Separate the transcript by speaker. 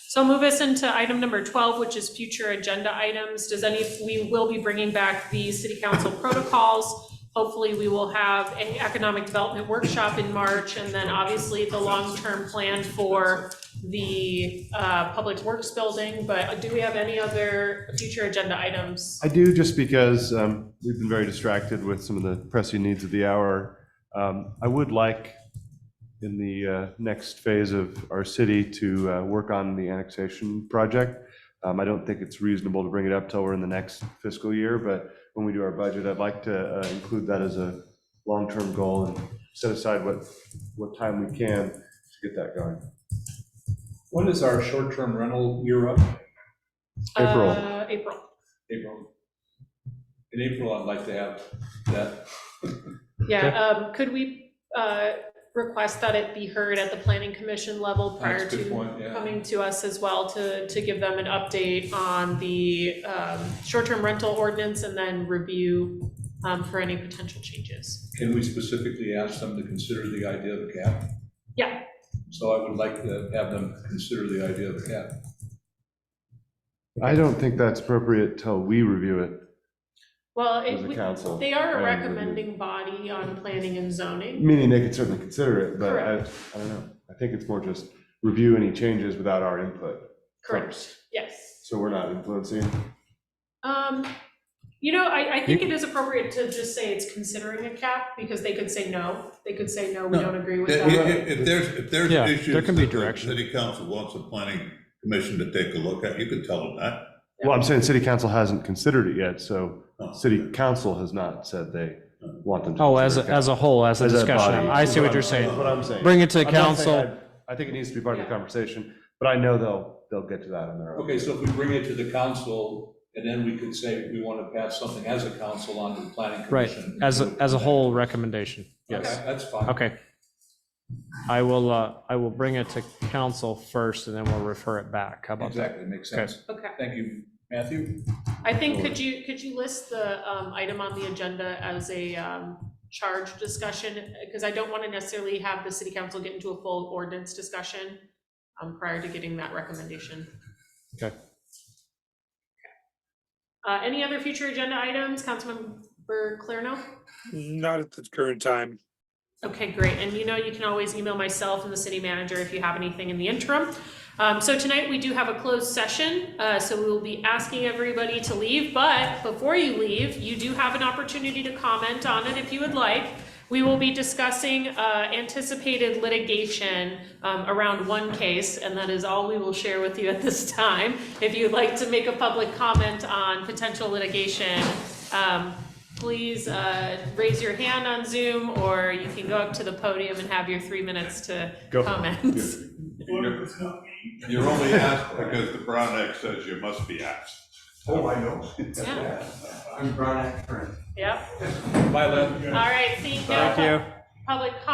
Speaker 1: So I'll move us into item number twelve, which is future agenda items. Does any, we will be bringing back the city council protocols. Hopefully, we will have an economic development workshop in March, and then obviously the long-term plan for the uh public works building, but do we have any other future agenda items?
Speaker 2: I do, just because um, we've been very distracted with some of the pressing needs of the hour. Um, I would like, in the uh, next phase of our city, to uh, work on the annexation project. Um, I don't think it's reasonable to bring it up till we're in the next fiscal year, but when we do our budget, I'd like to uh, include that as a long-term goal and set aside what, what time we can to get that going.
Speaker 3: When is our short-term rental year up?
Speaker 2: April.
Speaker 1: Uh, April.
Speaker 3: April. In April, I'd like to have that.
Speaker 1: Yeah, um, could we, uh, request that it be heard at the planning commission level prior
Speaker 3: That's a good
Speaker 1: to
Speaker 3: point, yeah.
Speaker 1: coming to us as well to, to give them an update on the, um, short-term rental ordinance and then review, um, for any potential changes?
Speaker 3: Can we specifically ask them to consider the idea of a cap?
Speaker 1: Yeah.
Speaker 3: So I would like to have them consider the idea of a cap.
Speaker 2: I don't think that's appropriate till we review it
Speaker 1: Well,
Speaker 2: as
Speaker 1: it,
Speaker 2: a
Speaker 1: we-
Speaker 2: council.
Speaker 1: they are a
Speaker 2: I agree.
Speaker 1: recommending body on planning and zoning.
Speaker 2: Meaning they could certainly consider it, but I,
Speaker 1: Correct.
Speaker 2: I don't know. I think it's more just review any changes without our input.
Speaker 1: Correct, yes.
Speaker 2: So we're not influencing.
Speaker 1: Um, you know, I, I think it is appropriate to just say it's considering a cap, because they could say no, they could say no, we
Speaker 4: No.
Speaker 1: don't agree with
Speaker 4: If,
Speaker 1: that.
Speaker 4: if- if there's, if there's
Speaker 5: Yeah, there
Speaker 4: issues.
Speaker 5: can be
Speaker 4: that the
Speaker 5: direction.
Speaker 4: City council wants the planning commission to take a look at, you can tell them that.
Speaker 2: Well, I'm saying city council hasn't considered it yet, so
Speaker 4: Oh.
Speaker 2: city council has not said they want them to.
Speaker 5: Oh, as, a-
Speaker 2: consider it.
Speaker 5: as a whole, as a discussion.
Speaker 2: body.
Speaker 5: I see what you're
Speaker 2: That's
Speaker 5: saying.
Speaker 2: What I'm saying.
Speaker 5: Bring it to the
Speaker 2: I'm not saying
Speaker 5: council.
Speaker 2: I I think it needs to be part of the conversation, but I know they'll, they'll get to that on their own.
Speaker 3: Okay, so if we bring it to the council, and then we could say we want to pass something as a council on to the planning
Speaker 5: Right,
Speaker 3: commission.
Speaker 5: as, a- as a whole recommendation,
Speaker 3: Okay,
Speaker 5: yes.
Speaker 3: That's fine.
Speaker 5: Okay. I will, uh, I will bring it to council first and then we'll refer it back. How about that?
Speaker 3: Exactly, makes sense.
Speaker 1: Okay,
Speaker 3: Thank you, Matthew.
Speaker 1: I think, could you, could you list the, um, item on the agenda as a, um, charge discussion? Because I don't want to necessarily have the city council get into a full ordinance discussion, um, prior to getting that recommendation.
Speaker 5: Okay.
Speaker 1: Okay. Uh, any other future agenda items, Councilmember Clarno?
Speaker 6: Not at the current time.
Speaker 1: Okay, great. And you know, you can always email myself and the city manager if you have anything in the interim. Um, so tonight we do have a closed session, uh, so we will be asking everybody to leave. But before you leave, you do have an opportunity to comment on it if you would like. We will be discussing, uh, anticipated litigation, um, around one case, and that is all we will share with you at this time. If you'd like to make a public comment on potential litigation, um, please uh, raise your hand on Zoom, or you can go up to the podium and have your three minutes to
Speaker 2: Go.
Speaker 1: comment.
Speaker 4: You're you're only asked because the Brown Act says you must be asked.
Speaker 7: Oh, I know.
Speaker 1: Yeah.
Speaker 7: I'm Brian Akron.
Speaker 1: Yep,
Speaker 3: Bye, Lynn.
Speaker 1: all right, seeing no
Speaker 5: Thank you.
Speaker 1: public comment.